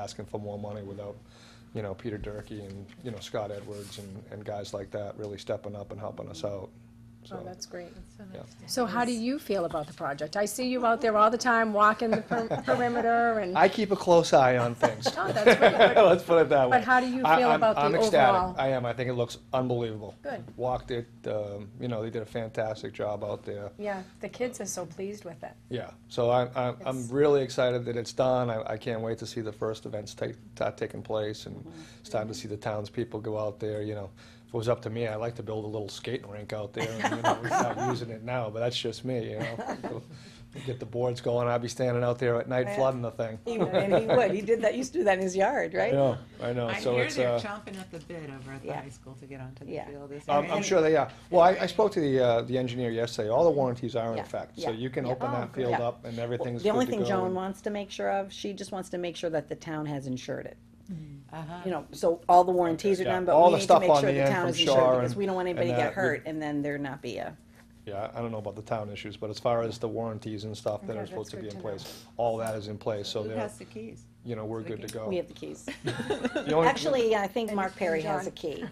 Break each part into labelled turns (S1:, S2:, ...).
S1: asking for more money without, you know, Peter Durkee and, you know, Scott Edwards and, and guys like that really stepping up and helping us out.
S2: Oh,
S1: So,
S2: that's great.
S1: yeah.
S2: So how do you feel about the project? I see you out there all the time walking the per- perimeter and,
S1: I keep a close eye on things.
S2: oh, that's great.
S1: Let's put it that way.
S2: But how do you
S1: I-
S2: feel
S1: I'm-
S2: about
S1: I'm
S2: the
S1: ecstatic.
S2: overall?
S1: I am. I think it looks unbelievable.
S2: Good.
S1: Walked it, um, you know, they did a fantastic job out there.
S2: Yeah, the kids are so pleased with it.
S1: Yeah, so I'm, I'm, I'm
S2: It's-
S1: really excited that it's done. I, I can't wait to see the first events take, ta- taking place, and
S3: Mm-hmm.
S1: it's time to see the townspeople go out there, you know. If it was up to me, I'd like to build a little skating rink out there, and, you know, we're not using it now, but that's just me, you know. Get the boards going, I'd be standing out there at night
S3: Yeah.
S1: flooding the thing.
S3: He would, and he would. He did that, used to do that in his yard,
S1: I
S3: right?
S1: know, I know,
S4: I
S1: so
S4: hear
S1: it's,
S4: they're
S1: uh,
S4: chomping at the bit over at the
S3: Yeah.
S4: high school to get onto the
S3: Yeah.
S4: field. is
S1: I'm,
S4: there
S1: I'm
S4: any-
S1: sure they are. Well, I, I spoke to the, uh, the engineer yesterday, all the warranties are in
S3: Yeah,
S1: effect, so
S3: yeah,
S1: you can
S3: yeah.
S1: open
S2: Oh,
S1: that
S2: good.
S1: field
S3: Yeah.
S1: up and everything's good
S3: The only
S1: to
S3: thing
S1: go
S3: Joan
S1: and-
S3: wants to make sure of, she just wants to make sure that the town has insured it.
S4: Uh-huh.
S3: You know, so all the warranties are
S1: Yeah,
S3: done, but
S1: all
S3: we
S1: the
S3: need to
S1: stuff
S3: make
S1: on
S3: sure
S1: the
S3: the
S1: end
S3: town
S1: from
S3: is insured
S1: Shar
S3: because
S1: and-
S3: we don't want anybody to
S1: and
S3: get
S1: that, we-
S3: hurt and then there not be uh, a,
S1: Yeah, I I don't know about the town issues, but as far as the warranties and stuff that
S2: Yeah,
S1: are
S2: that's
S1: supposed to
S2: good
S1: be in
S2: to know.
S1: place, all that is in place, so
S4: Who
S1: they're,
S4: has the keys?
S1: you know, we're
S4: to the
S1: good to
S4: gate?
S1: go.
S3: we have the keys.
S1: Oh. The only-
S3: Actually, I think
S2: And-
S3: Mark Perry
S2: and
S3: has a
S2: John.
S3: key.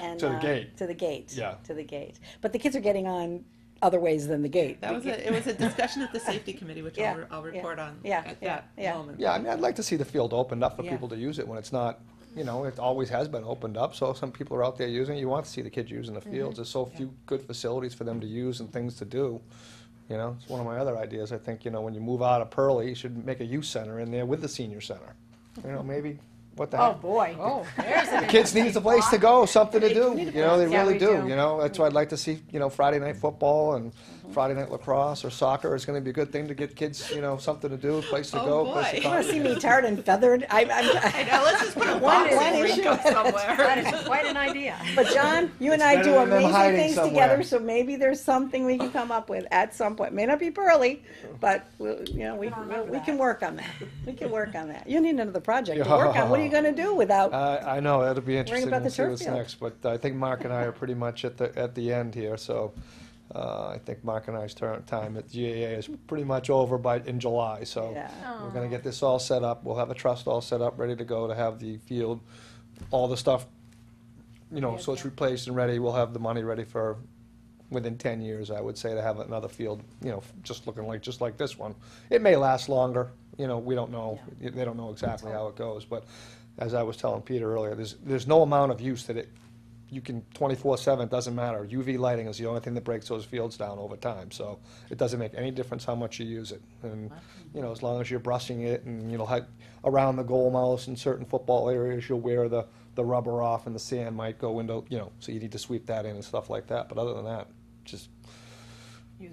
S3: and,
S1: To the
S3: uh,
S1: gate.
S3: To the gate.
S1: Yeah.
S3: To the gate. But the kids are getting on other ways than the gate.
S4: That was a, it was a discussion at the safety committee, which I'll,
S3: Yeah,
S4: re- I'll
S3: yeah,
S4: report on
S3: yeah,
S4: at
S3: yeah,
S4: that
S3: yeah.
S4: moment.
S1: Yeah, I mean, I'd like to see the field opened up for
S4: Yeah.
S1: people to use it when it's not, you know, it always has been opened up, so some people are out there using it, you want to see the kids using the fields, there's so few good facilities for them to use and things to do. You know, it's one of my other ideas, I think, you know, when you move out of Pearlie, you should make a youth center in there with the senior center. You know, maybe, what the
S2: Oh,
S1: heck?
S2: boy. Oh, there's
S1: The kids need a place to go, something to do, you know, they
S2: Yeah,
S1: really
S2: we
S1: do,
S2: do.
S1: you know, that's why I'd like to see, you know, Friday night football and Friday night lacrosse or soccer, it's gonna be a good thing to get kids, you know, something to do, a place to
S4: Oh,
S1: go, a place to
S4: boy.
S3: You wanna
S1: come.
S3: see me tarred and feathered? I, I'm,
S4: I know, let's just put a
S3: One-
S4: boxing
S3: one
S4: rink
S3: issue
S4: up
S3: at a
S2: That
S4: somewhere.
S2: is quite an idea.
S3: but John, you and
S1: It's
S3: I
S1: better
S3: do
S1: than them
S3: amazing
S1: hiding
S3: things
S1: somewhere.
S3: together, so maybe there's something we can come up with at some point. May not be Pearly, but we'll, you know, we,
S2: I don't remember
S3: we
S2: that.
S3: can work on that. We can work on that. You need another project to work on. What are you gonna do without,
S1: I, I know, that'll be interesting
S3: about
S1: to
S3: the
S1: see
S3: turf
S1: what's
S3: field.
S1: next, but I think Mark and I are pretty much at the, at the end here, so, uh, I think Mark and I's turn, time at GAA is pretty much over by, in July, so.
S3: yeah.
S1: We're gonna get this all set up, we'll have a trust all set up, ready to go to have the field, all the stuff, you know, so it's replaced and ready, we'll have the money ready for, within ten years, I would say, to have another field, you know, just looking like, just like this one. It may last longer, you know, we don't know, they don't know exactly how it goes, but as I was telling Peter earlier, there's, there's no amount of use that it, you can, twenty-four seven, doesn't matter, UV lighting is the only thing that breaks those fields down over time, so it doesn't make any difference how much you use it, and, you know, as long as you're brushing it and, you know, hi- around the goal mouse in certain football areas, you'll wear the, the rubber off and the sand might go into, you know, so you need to sweep that in and stuff like that, but other than that, just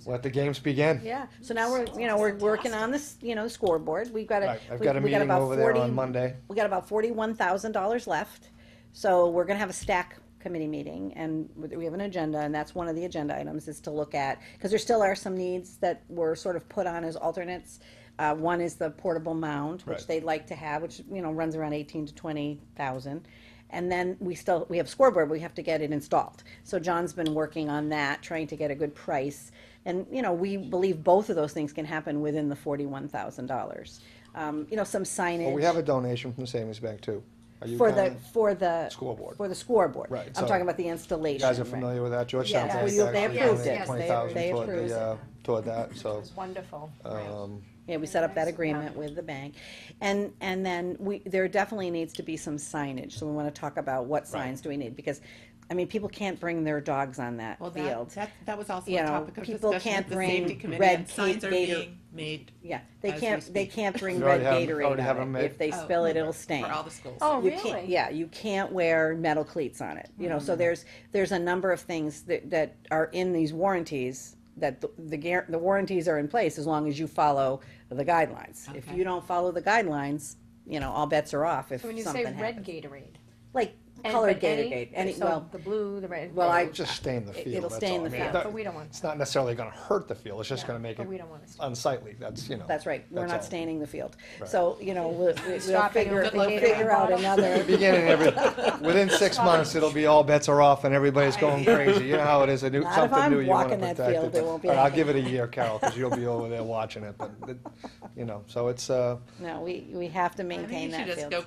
S1: let the games begin.
S3: Yeah, so now we're, you know, we're working on this, you know, scoreboard, we've got a.
S1: Right, I've
S3: we-
S1: got a
S3: we
S1: meeting
S3: about
S1: over there
S3: 40
S1: on Monday.
S3: We got about forty-one thousand dollars left, so we're gonna have a stack committee meeting, and we have an agenda, and that's one of the agenda items is to look at, because there still are some needs that were sort of put on as alternates. Uh, one is the portable mound, which
S1: Right.
S3: they'd like to have, which, you know, runs around eighteen to twenty thousand. And then we still, we have scoreboard, we have to get it installed. So John's been working on that, trying to get a good price. And, you know, we believe both of those things can happen within the forty-one thousand dollars. Um, you know, some signage.
S1: Well, we have a donation from the Savings Bank too. Are you
S3: For the,
S1: kinda-
S3: for the.
S1: Scoreboard.
S3: For the scoreboard.
S1: Right,
S3: I'm
S1: so-
S3: talking about the installation.
S1: You guys are
S3: right.
S1: familiar with that, Georgetown
S3: Yes,
S1: Bank
S3: we-
S1: actually
S3: they approved
S1: donated
S3: it.
S1: Twenty
S3: They-
S1: thousand
S3: they
S1: toward
S3: approved
S1: the,
S3: it.
S1: uh, toward that, so,
S2: It's wonderful.
S1: um,
S3: Yeah, we set up that agreement with the bank. And, and then we, there definitely needs to be some signage, so we wanna talk about what signs do we need, because, I mean, people can't bring their dogs on that
S4: Well, that,
S3: field.
S4: that, that was also
S3: You
S4: a
S3: know,
S4: topic of
S3: people
S4: discussion
S3: can't
S4: at the
S3: bring
S4: safety committee,
S3: red
S4: and signs
S3: Cape
S4: are
S3: Gator-
S4: being made
S3: Yeah, they
S4: as we
S3: can't, they
S4: speak.
S3: can't bring
S1: We
S3: red
S1: already have 'em-
S3: Gatorade
S1: already have 'em
S3: on
S1: made.
S3: it. If they
S4: Oh,
S3: spill it, it'll stain.
S4: for all the schools.
S2: Oh,
S3: You can't,
S2: really? Hmm.
S3: yeah, you can't wear metal cleats on it, you know, so there's, there's a number of things that, that are in these warranties that the, the guar- the warranties are in place as long as you follow the guidelines. If
S4: Okay.
S3: you don't follow the guidelines, you know, all bets are off if
S2: When you
S3: something
S2: say
S3: happens.
S2: red Gatorade,
S3: like
S5: And-
S3: colored
S5: but
S3: Gator
S5: any-
S3: Gate, any,
S5: so
S3: well,
S5: The blue, the red.
S3: well, I-
S1: It'll just stain the
S3: It-
S1: field,
S3: it'll
S1: that's
S3: stain
S1: all. I
S3: the
S1: mean,
S5: Yeah,
S1: that-
S5: but we don't want.
S1: It's not necessarily gonna hurt the field, it's just
S5: yeah,
S1: gonna make
S5: But we
S1: it
S5: don't want to.
S1: unsightly, that's, you know.
S3: that's right, we're
S1: that's
S3: not
S1: all.
S3: staining the field.
S1: Right.
S3: So, you know, we'll, we'll
S5: Stop it,
S3: figure,
S5: it'll
S4: be
S3: figure out
S5: bottom.
S3: another,
S1: Beginning every, within six months, it'll be all bets are off and everybody's going crazy, you know how it is, a new,
S3: Not if
S1: something
S3: I'm
S1: new you wanna
S3: walking that
S1: protect.
S3: field,
S1: it.
S3: there won't be
S1: All right, I'll give it a year, Carol, cause you'll be over there watching it, but, it- you know, so it's, uh,
S3: no, we, we have to
S4: I think
S3: maintain
S4: you
S3: that
S4: should just
S3: field.
S4: go